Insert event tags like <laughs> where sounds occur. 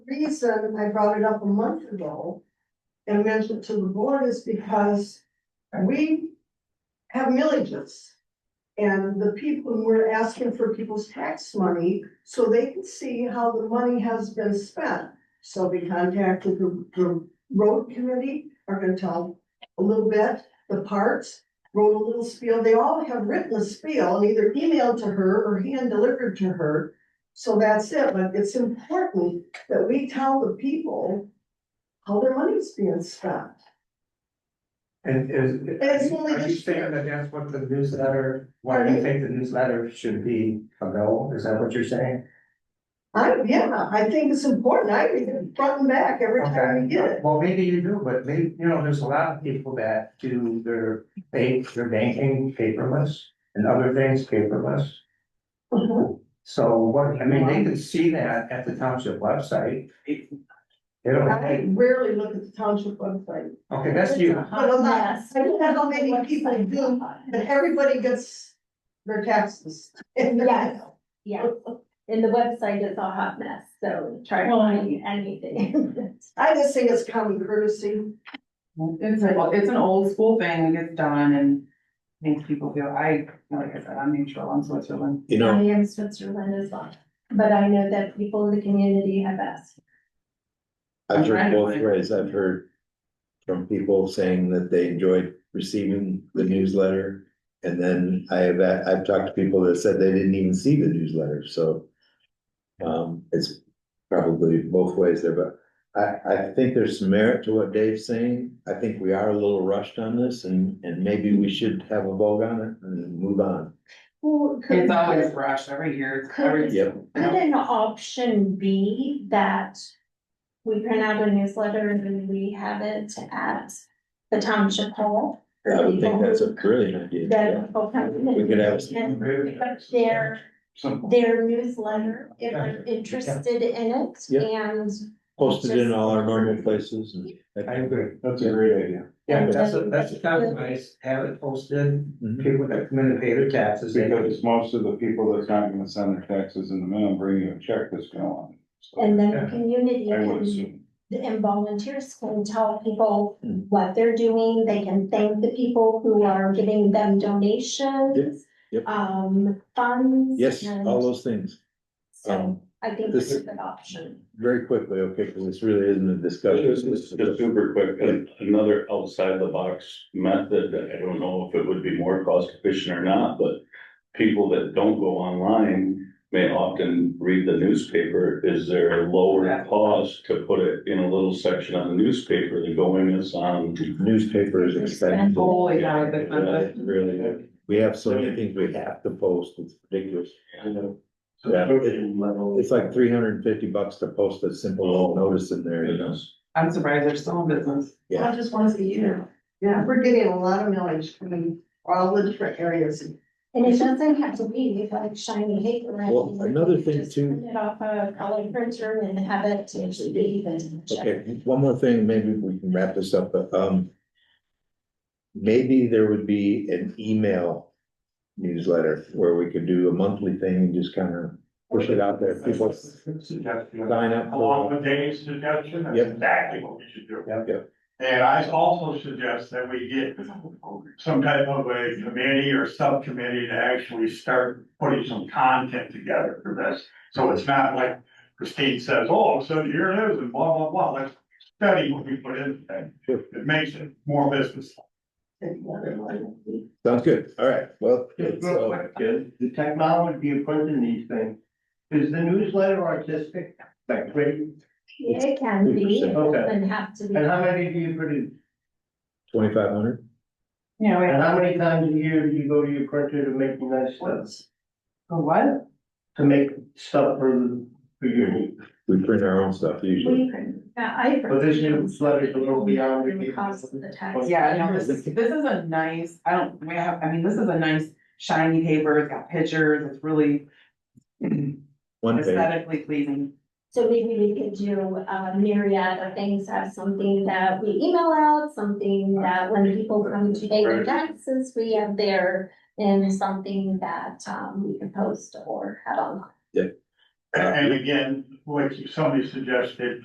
reason I brought it up a month ago and mentioned to the board is because we have millages. And the people, we're asking for people's tax money so they can see how the money has been spent. So we contacted the, the road committee, are gonna tell a little bit, the parts, wrote a little spiel. They all have written a spiel and either emailed to her or hand delivered to her. So that's it, but it's important that we tell the people how their money's being spent. And is. It's only Are you this year. saying that that's what the newsletter, why do you think the newsletter should be available? Is that what you're saying? I, yeah, I think it's important. I read it front and back every time we get Okay, it. well, maybe you do, but maybe, you know, there's a lot of people that do their bank, their banking paperless and other things paperless. Mhm. So what, I mean, they can see that at the township website. They don't, I rarely look at the township website, okay, that's you. But I'm not- I don't know how many people do. but everybody gets their taxes. Yes. Yeah, and the website is a hot mess, so try to find <laughs> anything. I just think it's common courtesy. It's an, it's an old school thing that gets done and makes people feel, I, like I said, I'm neutral on Switzerland. You I know, am Switzerland as well, but I know that people in the community have asked. I've Right. heard both ways. I've heard from people saying that they enjoyed receiving the newsletter. And then I have, I've talked to people that said they didn't even see the newsletter, so. Um, it's probably both ways there, but I, I think there's some merit to what Dave's saying. I think we are a little rushed on this and, and maybe we should have a vote on it and move on. It's always rushed every year, it's every. Yep. Could an option be that we print out a newsletter and then we have it at the township hall? for I would think people that's a who- brilliant idea. That people come in. We could have- and pick up their, Some- their newsletter, if they're interested in it, Yeah. and Posted in all our normal places and. I agree. That's a great idea. Yeah, that's a, that's a compromise, have it posted, Mhm. people that come in and pay their taxes, they go to. Because most of the people that's not gonna send their taxes in the mail, bring you a check that's going on. And then Yeah. the community I would can, assume. and volunteers can tell people Mm. what they're doing, they can thank the people who are giving them donations. Yep, yep. Um, funds. Yes, and all those things. So um, I think this- it's a good option. very quickly, okay, because this really isn't a discussion. Just, just just super quick, and another outside the box method, I don't know if it would be more cost efficient or not, but. People that don't go online may often read the newspaper, is there a lower cost to put it in a little section on the newspaper than going us on? Newspaper is expensive. Holy cow, it's Yeah, expensive. it's Really, is. we have so many things we have to post, it's ridiculous. Yeah, it- It's It's like three hundred and fifty bucks to post a simple little notice in there, you know? I'm surprised they're still in business. Yeah. just once a year. Yeah, we're getting a lot of mileage from all the different areas. And it doesn't have to be like shiny paper. or Well, anything. another You thing just too- Print it off a color printer and have it actually be even. Okay, one more thing, maybe we can wrap this up, but, um, maybe there would be an email newsletter where we could do a monthly thing and just kind of push it out there. People sign up. Along for- with Dave's suggestion, that's Yep. exactly what we should do. Yep, yep. And I also suggest that we get some type of a committee or subcommittee to actually start putting some content together for this. So it's not like Christine says, oh, so here it is and blah, blah, blah, let's study what we put in there. Sure. It makes it more business. Sounds good, all right, well. Just it's, real uh, quick, kid, the technology of printing these things, is the newsletter artistic, like print, It can be, it 50%. doesn't have to be. and how many do you produce? Twenty-five hundred? Yeah, wait, And how many times a year do you go to your printer to make nice stuff, the what? to make stuff for, for your needs? We print our own stuff usually. We print, yeah, I. But this is slightly below beyond the- The cost of the tax. Yeah, no, this, this is a nice, I don't, we have, I mean, this is a nice shiny paper, it's got pictures, it's really One page, aesthetically pleasing. So maybe we could do a myriad of things, have something that we email out, something that when people come to pay their taxes, we have there. And something that um we can post or have online. And again, what somebody suggested,